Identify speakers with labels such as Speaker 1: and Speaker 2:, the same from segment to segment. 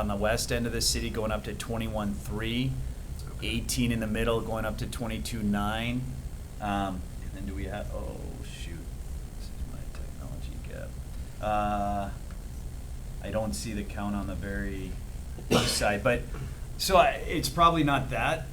Speaker 1: on the west end of the city going up to twenty-one three, eighteen in the middle going up to twenty-two nine. Um, and then do we have, oh, shoot, this is my technology gap. Uh, I don't see the count on the very east side, but, so I, it's probably not that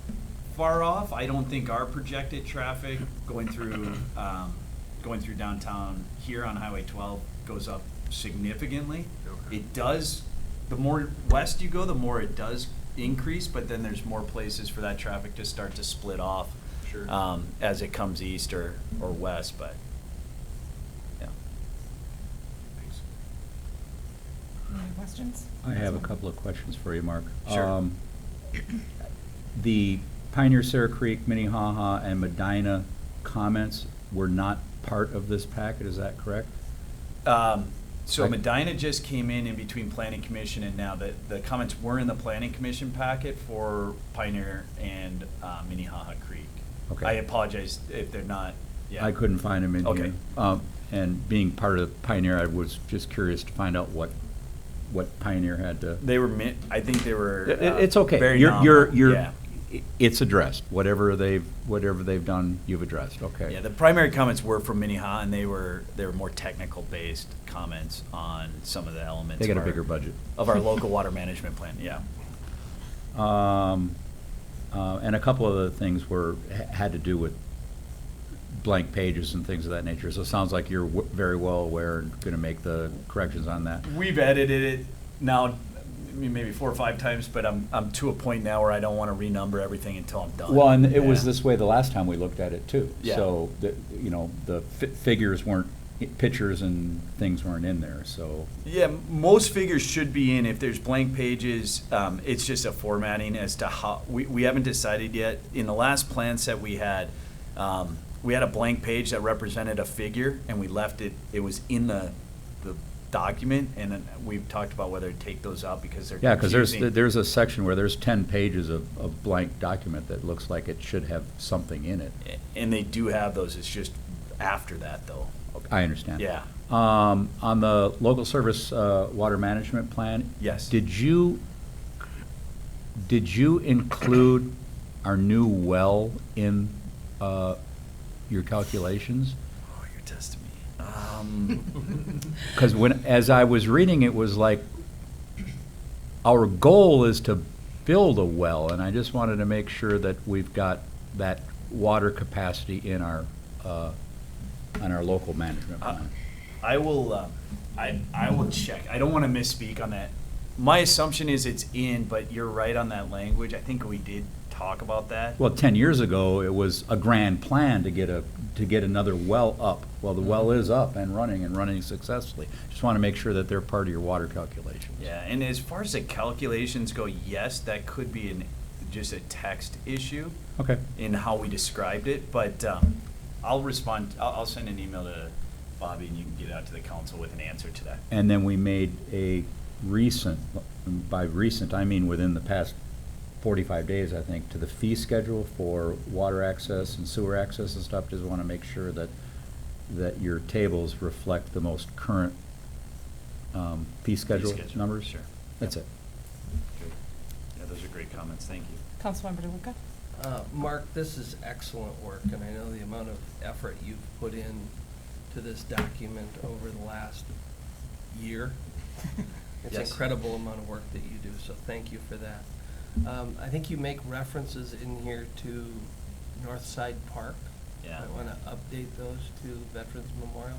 Speaker 1: far off. I don't think our projected traffic going through, um, going through downtown here on Highway twelve goes up significantly.
Speaker 2: Okay.
Speaker 1: It does, the more west you go, the more it does increase, but then there's more places for that traffic to start to split off.
Speaker 2: Sure.
Speaker 1: Um, as it comes east or, or west, but, yeah.
Speaker 2: Thanks.
Speaker 3: Any questions?
Speaker 4: I have a couple of questions for you, Mark.
Speaker 1: Sure.
Speaker 4: Um, The Pioneer Sarah Creek, Minnehaha, and Medina comments were not part of this packet, is that correct?
Speaker 1: Um, so
Speaker 4: Right.
Speaker 1: Medina just came in in between planning commission and now the, the comments were in the planning commission packet for Pioneer and, uh, Minnehaha Creek.
Speaker 4: Okay.
Speaker 1: I apologize if they're not, yeah.
Speaker 4: I couldn't find them in here.
Speaker 1: Okay.
Speaker 4: Um, And being part of Pioneer, I was just curious to find out what, what Pioneer had to.
Speaker 1: They were mi- I think they were.
Speaker 4: It-
Speaker 1: uh,
Speaker 4: It's okay.
Speaker 1: Very
Speaker 4: You're, you're,
Speaker 1: nominal,
Speaker 4: you're,
Speaker 1: yeah.
Speaker 4: i- it's addressed. Whatever they've, whatever they've done, you've addressed, okay.
Speaker 1: Yeah, the primary comments were from Minnehaha, and they were, they were more technical-based comments on some of the elements.
Speaker 4: They got a
Speaker 1: of our-
Speaker 4: bigger budget.
Speaker 1: Of our local water management plan, yeah.
Speaker 4: Um, uh, and a couple of the things were, ha- had to do with blank pages and things of that nature. So it sounds like you're w- very well aware and going to make the corrections on that.
Speaker 1: We've edited it now, I mean, maybe four or five times, but I'm, I'm to a point now where I don't want to renumber everything until I'm done.
Speaker 4: Well, and it was
Speaker 1: Yeah.
Speaker 4: this way the last time we looked at it too.
Speaker 1: Yeah.
Speaker 4: So, the, you know, the fi- figures weren't, i- pictures and things weren't in there, so.
Speaker 1: Yeah, m- most figures should be in. If there's blank pages, um, it's just a formatting as to how, we, we haven't decided yet. In the last plan set we had, um, we had a blank page that represented a figure and we left it, it was in the, the document. And then we've talked about whether to take those out because they're
Speaker 4: Yeah, because there's,
Speaker 1: confusing.
Speaker 4: there's a section where there's ten pages of, of blank document that looks like it should have something in it.
Speaker 1: And they do have those. It's just after that though.
Speaker 4: I understand.
Speaker 1: Yeah.
Speaker 4: Um, on the local service, uh, water management plan?
Speaker 1: Yes.
Speaker 4: Did you, did you include our new well in, uh, your calculations?
Speaker 1: Oh, you're testing me. Um,
Speaker 4: Because when, as I was reading, it was like, our goal is to build a well, and I just wanted to make sure that we've got that water capacity in our, uh, on our local management
Speaker 1: Uh,
Speaker 4: plan.
Speaker 1: I will, uh, I, I will check. I don't want to misspeak on that. My assumption is it's in, but you're right on that language. I think we did talk about that.
Speaker 4: Well, 10 years ago, it was a grand plan to get a, to get another well up. Well, the well is up and running and running successfully. Just want to make sure that they're part of your water calculations.
Speaker 1: Yeah, and as far as the calculations go, yes, that could be an, just a text issue
Speaker 4: Okay.
Speaker 1: in how we described it, but, um, I'll respond, I'll, I'll send an email to Bobby and you can get out to the council with an answer to that.
Speaker 4: And then we made a recent, by recent, I mean within the past 45 days, I think, to the fee schedule for water access and sewer access and stuff. Just want to make sure that, that your tables reflect the most current um, fee schedule
Speaker 1: schedule,
Speaker 4: numbers.
Speaker 1: sure.
Speaker 4: That's it.
Speaker 1: Good. Yeah, those are great comments. Thank you.
Speaker 3: Councilmember DeLuca?
Speaker 5: Uh, Mark, this is excellent work, and I know the amount of effort you've put in to this document over the last year. It's
Speaker 1: Yes.
Speaker 5: incredible amount of work that you do, so thank you for that. Um, I think you make references in here to Northside Park.
Speaker 1: Yeah.
Speaker 5: I want to update those to Veterans Memorial.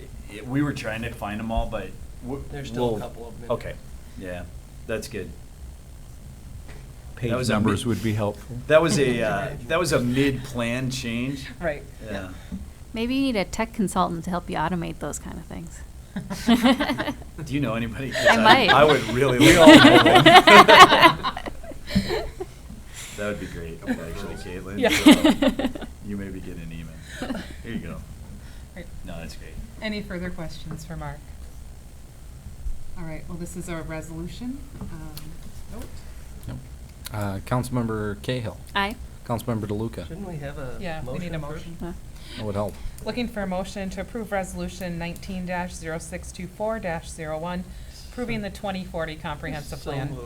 Speaker 1: I- I- We were trying to find them all, but we
Speaker 5: There's still a couple of them. in there.
Speaker 1: Okay, yeah, that's good.
Speaker 4: Page
Speaker 1: was a
Speaker 4: numbers
Speaker 1: mi-
Speaker 4: would be helpful.
Speaker 1: That was a, uh, that was a mid-plan change.
Speaker 3: Right.
Speaker 1: Yeah.
Speaker 6: Maybe you need a tech consultant to help you automate those kind of things.
Speaker 1: Do you know anybody? 'Cause
Speaker 6: I might.
Speaker 1: I would really.
Speaker 4: We
Speaker 1: like-
Speaker 4: all know
Speaker 1: That would be great, actually, Caitlin.
Speaker 6: Yeah.
Speaker 1: so You may be getting an email. Here you go.
Speaker 3: Right.
Speaker 1: No, that's great.
Speaker 3: Any further questions for Mark? All right, well, this is our resolution. Um, vote.
Speaker 7: Uh, Councilmember Cahill.
Speaker 6: Aye.
Speaker 7: Councilmember DeLuca.
Speaker 5: Shouldn't we have a motion
Speaker 3: Yeah, we need a
Speaker 5: first?
Speaker 3: motion.
Speaker 6: Huh.
Speaker 7: That would help.
Speaker 8: Looking for a motion to approve resolution nineteen 624 one
Speaker 3: approving the 2040 comprehensive
Speaker 5: So
Speaker 3: plan.
Speaker 5: moved.